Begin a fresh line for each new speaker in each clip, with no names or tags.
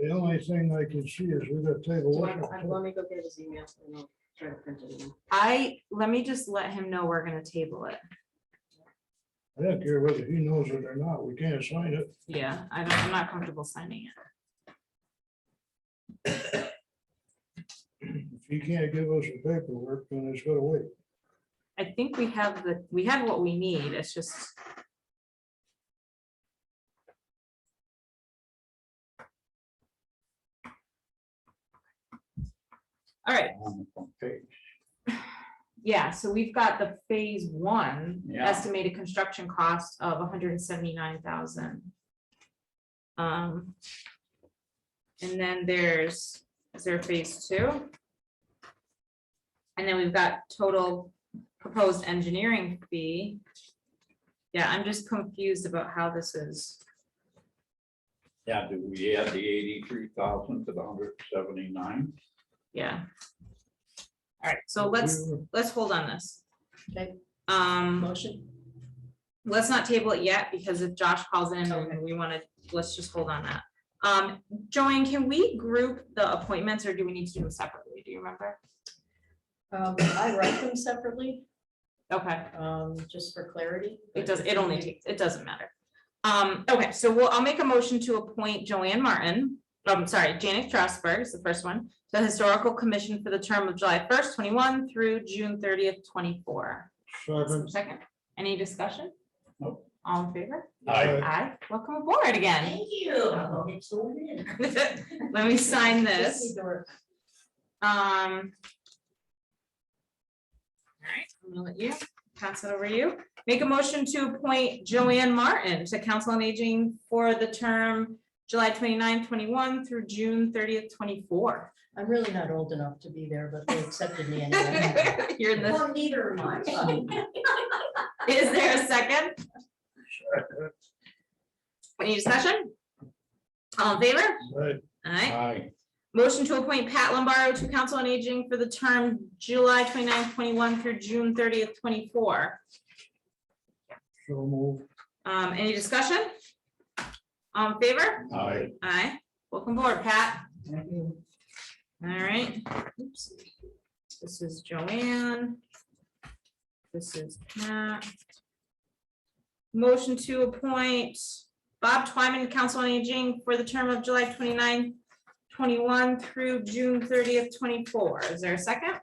The only thing I can see is we got
Do
table.
you
one.
want- I- Let me go get his email and I'll try to print it. in.
I, let me just let him know we're gonna table it.
I don't care whether he knows it or not, we can't sign it.
Yeah, I don't, I'm not comfortable signing it.
If he can't give us the paperwork, then it's gotta wait.
I think we have the, we have what we need, it's just. All right,
Okay,
yeah, so we've got the phase one
Yeah.
estimated construction cost of hundred and seventy-nine thousand. Um. And then there's, is there a phase two? And then we've got total proposed engineering fee. Yeah, I'm just confused about how this is.
Yeah, do we add the eighty-three thousand to the hundred seventy-nine?
Yeah. All right, so let's, let's hold on this.
Okay.
Um,
Motion?
let's not table it yet, because if Josh calls in,
Okay.
and we wanna, let's just hold on that. Um, Joanne, can we group the appointments, or do we need to do them separately? Do you remember?
Um, I write them separately,
Okay,
um, just for clarity.
it does, it only takes, it doesn't matter. Um, okay, so we'll, I'll make a motion to appoint Joanne Martin, I'm sorry, Janet Strasberg is the first one, to the Historical Commission for the term of July first, twenty-one through June thirtieth, twenty-four.
Second,
Second, any discussion?
Nope.
All in favor?
Aye.
Aye, welcome aboard again.
Thank you. I'll get sworn in.
Let me sign
Just
this,
need to work.
um. All right, I'm gonna let you, pass it over to you. Make a motion to appoint Joanne Martin to Council on Aging for the term July 29, 21 through June thirtieth, twenty-four.
I'm really not old enough to be there, but they accepted me anyway.
You're in the,
neither am I.
is there a second? Any discussion? All in favor?
right,
Aye.
Aye.
Motion to appoint Pat Lombardo to Council on Aging for the term July 29, 21 through June thirtieth, twenty-four.
so move.
Um, any discussion? All in favor?
Aye.
Aye. Welcome aboard, Pat. All right. Oops. This is Joanne. This is Pat. Motion to appoint Bob Twyman to Council on Aging for the term of July 29, 21 through June thirtieth, twenty-four. Is there a second?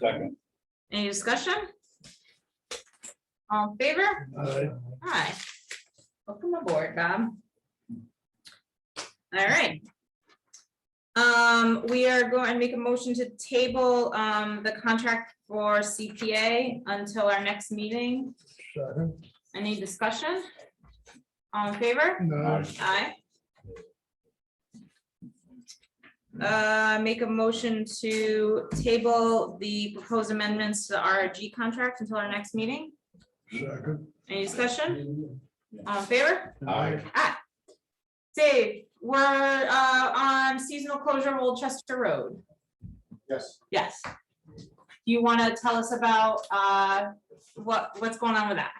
Second,
Any discussion? All in favor?
Aye.
Aye. Welcome aboard, Bob. All right. Um, we are going to make a motion to table, um, the contract for CPA until our next meeting.
Second,
Any discussion? All in favor?
no,
Aye.
Aye. Uh, make a motion to table the proposed amendments to the RRG contract until our next meeting.
second.
Any discussion? All in favor?
Aye.
Aye. Dave, we're uh on seasonal closure of Old Chester Road.
Yes,
Yes. Do you want to tell us about uh what what's going on with that?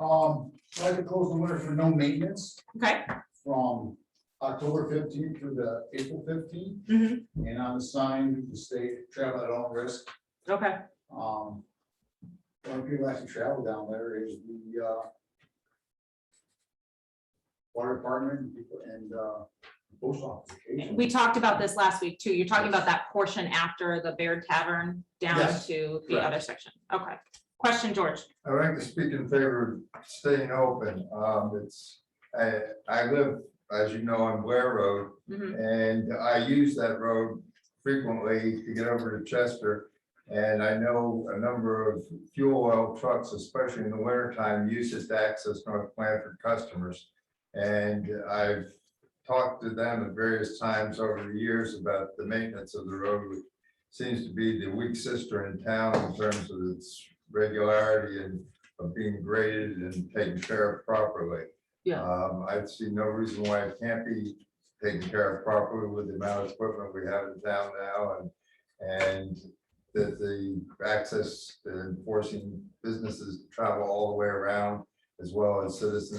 um, so I had to close the winter for no maintenance
Okay.
from October fifteenth through the April fifteenth.
Mhm.
And on the sign, the state travel at all risk,
Okay.
um. One of the people actually travel down there is the, uh. Water department and people- and, uh, post office.
We talked about this last week too. You're talking about that portion after the Bear Tavern down
Yes,
to the
correct.
other section. Okay. Question, George.
I would like to speak in favor of staying open. Um, it's, I, I live, as you know, on Blair Road.
Mhm.
And I use that road frequently to get over to Chester. And I know a number of fuel oil trucks, especially in the winter time, use it to access North Blanford customers. And I've talked to them at various times over the years about the maintenance of the road, which seems to be the weak sister in town in terms of its regularity and of being graded and taken care of properly.
Yeah.
Um, I see no reason why it can't be taken care of properly with the amount of equipment we have in town now and, and that the access and forcing businesses to travel all the way around as well as citizens